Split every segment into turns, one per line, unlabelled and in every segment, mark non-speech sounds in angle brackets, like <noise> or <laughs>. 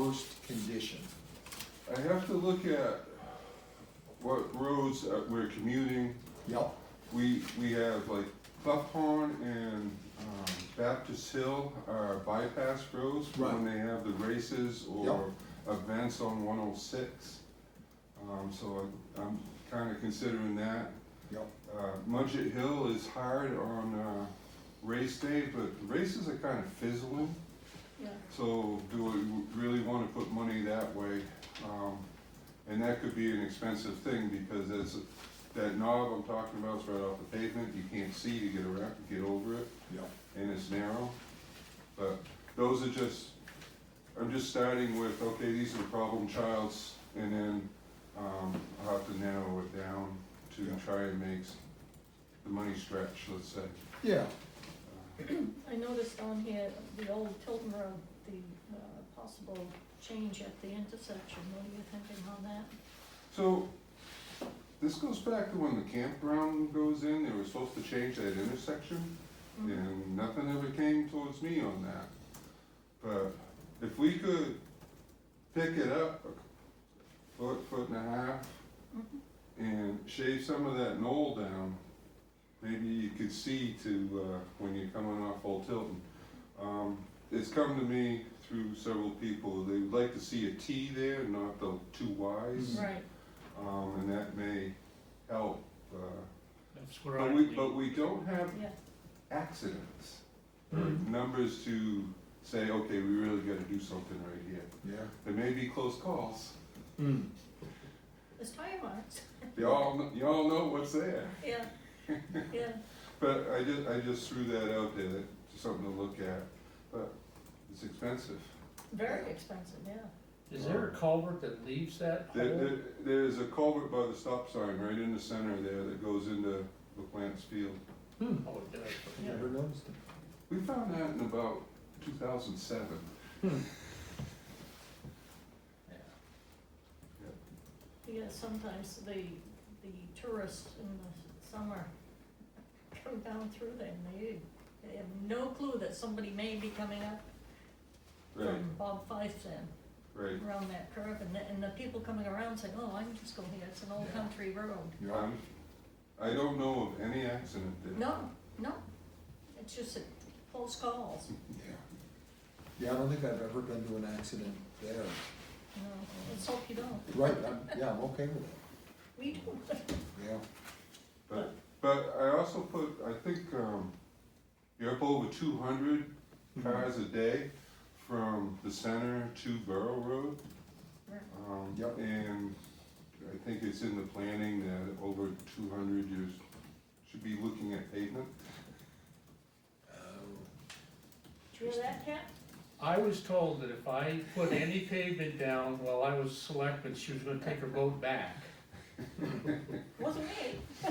first condition.
I have to look at what roads uh, we're commuting.
Yep,
We, we have like Buffhorn and um, Baptist Hill are bypass roads for when they have the races or events on one oh six. Um, so I- I'm kinda considering that.
yep,
Uh, Mudgett Hill is hard on, uh, race day, but the races are kinda fizzling.
Yeah,
So do we really wanna put money that way? Um, and that could be an expensive thing because that's, that knob I'm talking about is right off the pavement, you can't see to get around, get over it,
yep.
and it's narrow. But those are just, I'm just starting with, okay, these are the problem childs, and then, um, I'll have to narrow it down to
Yeah.
try and make s- the money stretch, let's say.
Yeah,
I noticed on here, the old Tilton Road, the uh, possible change at the intersection, what are you thinking on that?
So, this goes back to when the campground goes in, they were supposed to change that intersection,
Mm.
and nothing ever came towards me on that. But if we could pick it up a foot, foot and a half,
Mhm.
and shave some of that knoll down, maybe you could see to, uh, when you're coming off Old Tilton. Um, it's come to me through several people, they would like to see a T there, not the two Ys.
Right,
Um, and that may help, uh,
That's where I
but we, but we don't have
yeah,
accidents. or Numbers to say, okay, we really gotta do something right here.
yeah.
There may be close calls.
Hmm.
there's tire
<laughs>
marks,
Y'all, kn- y'all know what's there.
yeah, yeah,
But I just, I just threw that out there, that's something to look at, but it's expensive.
very expensive, yeah.
Is there a culvert that leaves that
There,
hole?
there, there's a culvert by the stop sign right in the center there that goes into McLance Field.
Oh, it does.
Yeah.
Hmm. Never noticed it.
We found that in about two thousand seven.
Yeah, sometimes the, the tourists in the summer come down through there and they, they have no clue that somebody may be coming up
Right,
from Bob Fife's end.
right.
around that curve, and the, and the people coming around saying, oh, I can just go here, it's an old
Yeah.
country road.
Yeah,
Um, I don't know of any accident there.
No, no, it's just a close calls,
yeah. Yeah, I don't think I've ever been to an accident there.
you know, let's hope you don't,
Right, I'm, yeah, I'm okay with it,
we do.
yeah.
But, but I also put, I think, um, you're up over two hundred cars a day from the center to Borough Road.
Right.
Um,
Yep.
and I think it's in the planning that over two hundred, you should be looking at pavement.
Oh,
Do you hear that, Cat?
I was told that if I put any pavement down while I was selectman, she was gonna take her vote back. <laughs>
Wasn't me,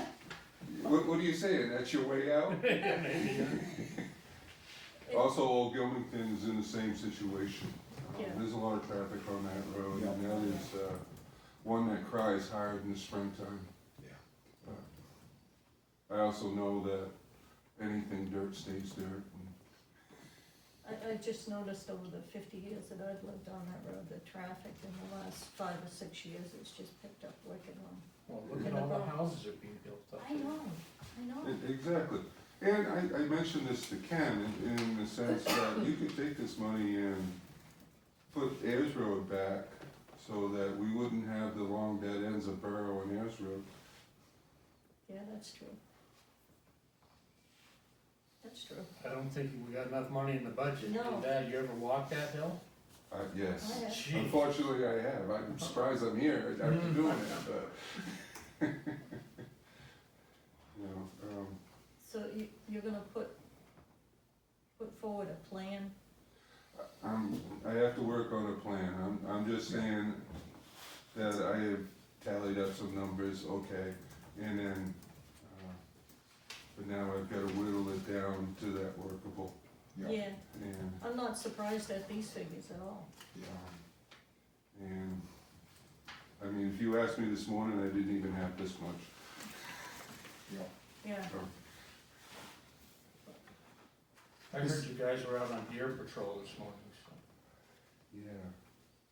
What, what are you saying, that's your way out?
It-
Also, Old Gilmington is in the same situation. Um,
Yeah.
There's a lot of traffic on that road, and
Yeah.
now there's, uh, one that cries hard in the springtime.
Yeah.
But I also know that anything dirt stays dirt. and-
I, I just noticed over the fifty years that I've lived on that road, the traffic in the last five or six years, it's just picked up wicked on.
Well, look at all the houses that are being built up.
I know, I know,
E- Exactly. And I, I mentioned this to Ken in, in the sense that you could take this money and put Ayers Road back so that we wouldn't have the long dead ends of Borough and Ayers Road.
yeah, that's true. That's true,
I don't think we got enough money in the budget.
No.
Did that, you ever walk that hill?
Uh, yes.
I have,
Gee.
Unfortunately, I have. I'm surprised I'm here after
Mm.
doing it, but. <laughs> You know, um,
So you, you're gonna put, put forward a plan?
I'm, I have to work on a plan. I'm, I'm just saying that I have tallied up some numbers, okay, and then, uh, but now I've gotta whittle it down to that workable
Yeah,
and,
I'm not surprised at these figures at all.
yeah,
um, and, I mean, if you asked me this morning, I didn't even have this much.
yeah.
Yeah,
so.
I heard you guys were out on deer patrol this morning, so.
Yeah,